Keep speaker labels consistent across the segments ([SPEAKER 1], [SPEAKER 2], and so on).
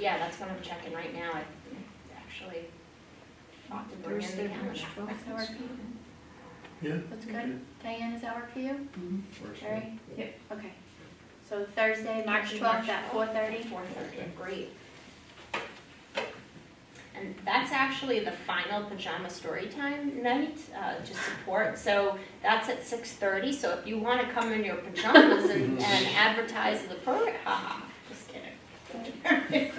[SPEAKER 1] Yeah, that's what I'm checking right now, I actually thought to bring in the
[SPEAKER 2] Thursday,
[SPEAKER 1] calendar.
[SPEAKER 2] March
[SPEAKER 3] Does
[SPEAKER 2] twelfth.
[SPEAKER 3] that work for you?
[SPEAKER 4] Yeah.
[SPEAKER 3] That's good. Diane, does that work for you?
[SPEAKER 4] Works for me.
[SPEAKER 3] Terry? Okay. So Thursday, March twelfth at four thirty?
[SPEAKER 1] Four thirty, great. And that's actually the final pajama story time night, uh, to support, so that's at six thirty, so if you wanna come in your pajamas and, and advertise the program, haha, just kidding.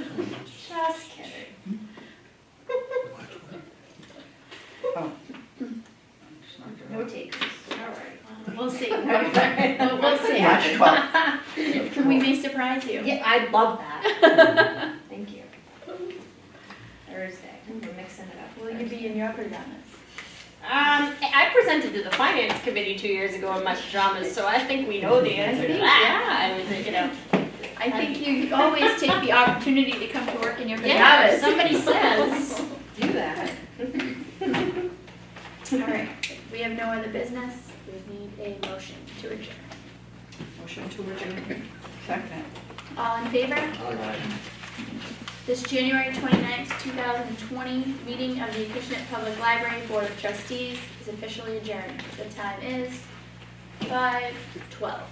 [SPEAKER 1] Just kidding. No takers, all right, we'll see, we'll see.
[SPEAKER 2] March
[SPEAKER 3] We may surprise you.
[SPEAKER 1] Yeah, I love that. Thank you. Thursday, we're mixing it up.
[SPEAKER 3] Will you be in your pajamas?
[SPEAKER 1] Um, I I presented to the finance committee two years ago in my pajamas, so I think we know the answer to that. I mean, you know.
[SPEAKER 3] I think you always take the opportunity to come to work in your
[SPEAKER 1] Yeah,
[SPEAKER 3] pajamas.
[SPEAKER 1] if somebody says, do that.
[SPEAKER 3] All right, we have no other business. We need a motion to adjourn.
[SPEAKER 2] Motion to adjourn. Second.
[SPEAKER 3] All in favor? This January 29th, 2020 meeting of the Acushnet Public Library Board of Trustees is officially adjourned. The time is 5:12.